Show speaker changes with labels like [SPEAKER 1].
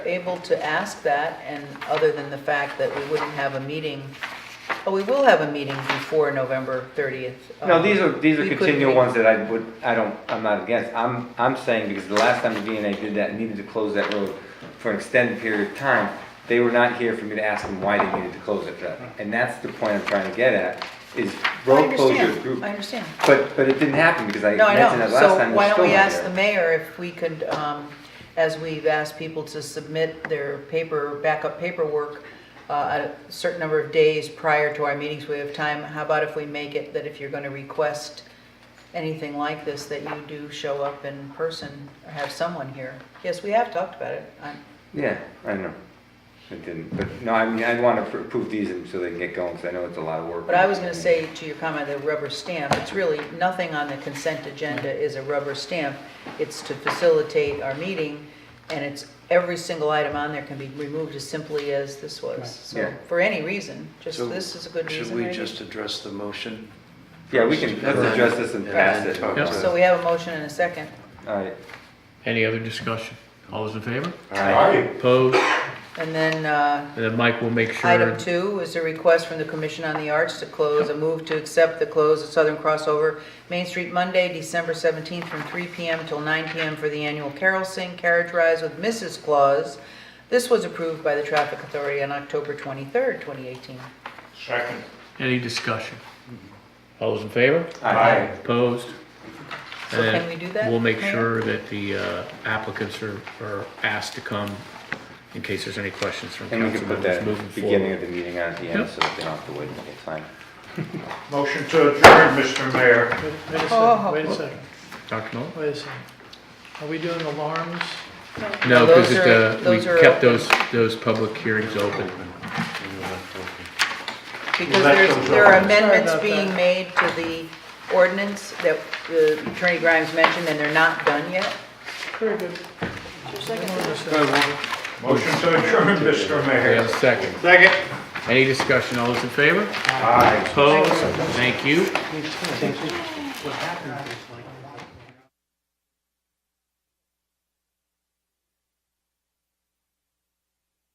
[SPEAKER 1] able to ask that, and other than the fact that we wouldn't have a meeting, oh, we will have a meeting before November 30th.
[SPEAKER 2] No, these are, these
[SPEAKER 1] Um, We
[SPEAKER 2] are
[SPEAKER 1] could
[SPEAKER 2] continual
[SPEAKER 1] re-
[SPEAKER 2] ones that I would, I don't, I'm not against. I'm, I'm saying because the last time the VNA did that, needed to close that road for an extended period of time, they were not here for me to ask them why they needed to close it. for that. And that's the point I'm trying to get at, is
[SPEAKER 1] I
[SPEAKER 2] road closure
[SPEAKER 1] understand.
[SPEAKER 2] group.
[SPEAKER 1] I understand.
[SPEAKER 2] But, but it didn't happen because I
[SPEAKER 1] No, I
[SPEAKER 2] mentioned
[SPEAKER 1] know.
[SPEAKER 2] that last
[SPEAKER 1] So
[SPEAKER 2] time. they're
[SPEAKER 1] why don't
[SPEAKER 2] still
[SPEAKER 1] we
[SPEAKER 2] not
[SPEAKER 1] ask
[SPEAKER 2] here.
[SPEAKER 1] the mayor if we could, um, as we've asked people to submit their paper, backup paperwork uh, at a certain number of days prior to our meetings, we have time, how about if we make it that if you're going to request anything like this, that you do show up in person or have someone here? Yes, we have talked about it. I'm-
[SPEAKER 2] Yeah, I know. It didn't, but no, I mean, I want to approve these and so they can get going because I know it's a lot of work.
[SPEAKER 1] But I was going to say to your comment, the rubber stamp, it's really, nothing on the consent agenda is a rubber stamp. It's to facilitate our meeting, and it's, every single item on there can be removed as simply as this was. So
[SPEAKER 2] Yeah.
[SPEAKER 1] for any reason, just
[SPEAKER 3] So
[SPEAKER 1] this is a good reason.
[SPEAKER 3] Should we
[SPEAKER 1] right?
[SPEAKER 3] just address the motion?
[SPEAKER 2] Yeah, we can, let's address this and pass it.
[SPEAKER 3] And then talk
[SPEAKER 1] So we have a motion and a second.
[SPEAKER 2] All right.
[SPEAKER 4] Any other discussion? All those in favor?
[SPEAKER 2] All right.
[SPEAKER 4] Opposed?
[SPEAKER 1] And then uh,
[SPEAKER 4] And then Mike will make sure.
[SPEAKER 1] item two is a request from the Commission on the Arts to close, a move to accept the close of Southern Crossover Main Street Monday, December 17th, from 3 PM till 9 PM for the annual Carol Sing Carriage Rides with Mrs. Claus. This was approved by the Traffic Authority on October 23rd, 2018.
[SPEAKER 5] Second.
[SPEAKER 4] Any discussion? All those in favor?
[SPEAKER 2] All right.
[SPEAKER 4] Opposed?
[SPEAKER 1] So
[SPEAKER 4] And
[SPEAKER 1] can we do that,
[SPEAKER 4] We'll make
[SPEAKER 1] Mayor?
[SPEAKER 4] sure that the uh, applicants are, are asked to come in case there's any questions from
[SPEAKER 2] And we
[SPEAKER 4] council
[SPEAKER 2] can put that
[SPEAKER 4] members
[SPEAKER 2] at the
[SPEAKER 4] moving
[SPEAKER 2] beginning
[SPEAKER 4] forward.
[SPEAKER 2] of the meeting on the end,
[SPEAKER 4] Yep.
[SPEAKER 2] so that they don't have to wait, okay, fine.
[SPEAKER 5] Motion to adjourn, Mr. Mayor.
[SPEAKER 6] Wait wait a
[SPEAKER 1] Oh.
[SPEAKER 6] second, wait a second,
[SPEAKER 4] Dr. Noel?
[SPEAKER 6] wait a second. Are we doing alarms?
[SPEAKER 4] No,
[SPEAKER 1] those
[SPEAKER 4] because it,
[SPEAKER 1] are-
[SPEAKER 4] uh, we
[SPEAKER 1] those are
[SPEAKER 4] kept
[SPEAKER 1] open.
[SPEAKER 4] those, those public hearings open.
[SPEAKER 1] Because
[SPEAKER 5] Well, that
[SPEAKER 1] there's,
[SPEAKER 5] comes
[SPEAKER 1] there are
[SPEAKER 5] up.
[SPEAKER 1] amendments
[SPEAKER 6] Sorry about
[SPEAKER 1] being
[SPEAKER 6] that.
[SPEAKER 1] made to the ordinance that uh, Attorney Grimes mentioned, and they're not done yet.
[SPEAKER 6] Very good.
[SPEAKER 5] Motion to adjourn, Mr.
[SPEAKER 4] We
[SPEAKER 5] Mayor.
[SPEAKER 4] have a second.
[SPEAKER 5] Second.
[SPEAKER 4] Any discussion? All those in favor?
[SPEAKER 5] Aye.
[SPEAKER 4] Opposed? Thank you.
[SPEAKER 6] What happened is like.